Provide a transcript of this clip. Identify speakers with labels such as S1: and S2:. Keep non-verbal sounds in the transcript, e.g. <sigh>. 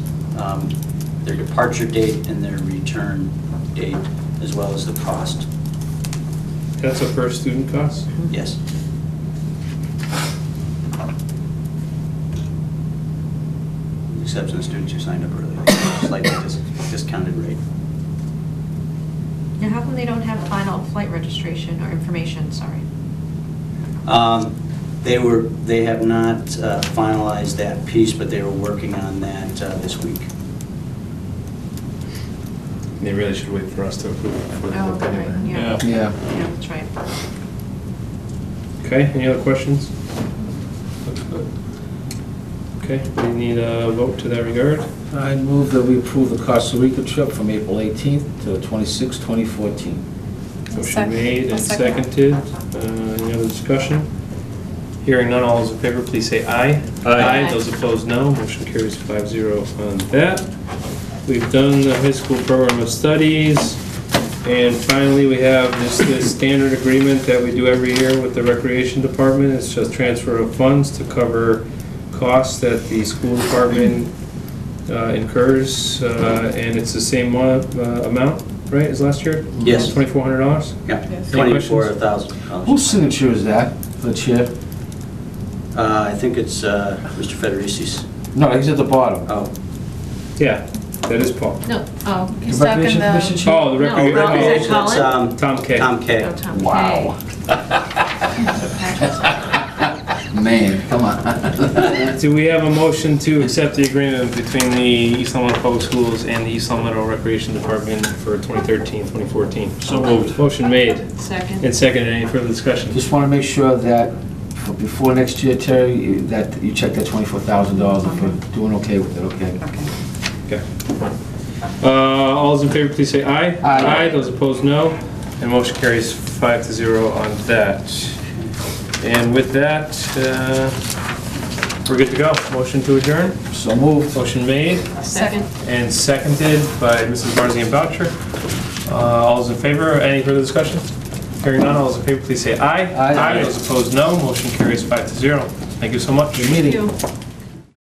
S1: um, their departure date and their return date, as well as the cost.
S2: That's a per student cost?
S1: Yes. With the Exception of students who signed up early, slightly dis- discounted rate.
S3: Now, how come they don't have final flight registration or information, sorry?
S1: Um, They were, they have not uh, finalized that piece, but they were working on that uh, this week.
S2: They really should wait for us to approve it before they
S3: Oh,
S2: look
S3: right,
S2: anyway.
S3: yeah. Yeah,
S4: Yeah.
S3: that's right.
S2: Okay, any other questions? Okay, we need a vote to that regard.
S4: I move that we approve the Costa Rica trip from April 18th to 26,
S2: Motion
S4: 2014.
S5: sec-
S2: made
S5: I'll
S2: and
S5: second.
S2: seconded. Uh, Any other discussion? Hearing none, all those in favor, please say aye.
S4: Aye.
S2: Those opposed, no. Motion carries five zero on that. We've done the high school program of studies. And finally, we have just this standard agreement that we do every year with the recreation department. It's just transfer of funds to cover costs that the school department uh, incurs. Uh, And it's the same mo- uh, amount, right, as last year?
S1: Yes.
S2: Twenty-four hundred dollars?
S1: Yeah,
S5: Yes.
S2: Any
S1: twenty-four
S2: questions?
S1: thousand dollars.
S4: Whose signature is that, the chair?
S1: I think it's uh, Mr. Federici's.
S4: No, he's at the bottom.
S1: Oh,
S2: Yeah, that is Paul.
S3: No, oh,
S5: He's stuck in
S4: Recreation Commission
S5: the,
S4: chair?
S2: Oh, the
S3: No, Ron, is
S2: record.
S3: it Colin?
S1: it's um,
S2: Tom K.
S1: Tom
S3: no,
S1: K.
S3: Tom K.
S4: Wow. <laughs> Man, come on. <laughs>
S2: Do we have a motion to accept the agreement between the East Long Meadow Public Schools and the East Long Meadow Recreation Department for 2013, 2014? So moved. Motion made
S3: Second.
S2: and seconded. Any further discussion?
S4: Just want to make sure that for- before next year, Terry, you- that you check that $24,000 if we're doing okay with it, okay?
S3: Okay.
S2: Okay. Uh, All those in favor, please say aye.
S4: Aye.
S2: Those opposed, no. And motion carries five to zero on that. And with that, uh, we're good to go. Motion to adjourn.
S4: So moved.
S2: Motion made.
S3: Second.
S2: And seconded by Mrs. Barzini and Boucher. Uh, All those in favor, any further discussion? Hearing none, all those in favor, please say aye.
S4: Aye.
S2: Those opposed, no. Motion carries five to zero. Thank you so much.
S4: Good meeting.
S3: You.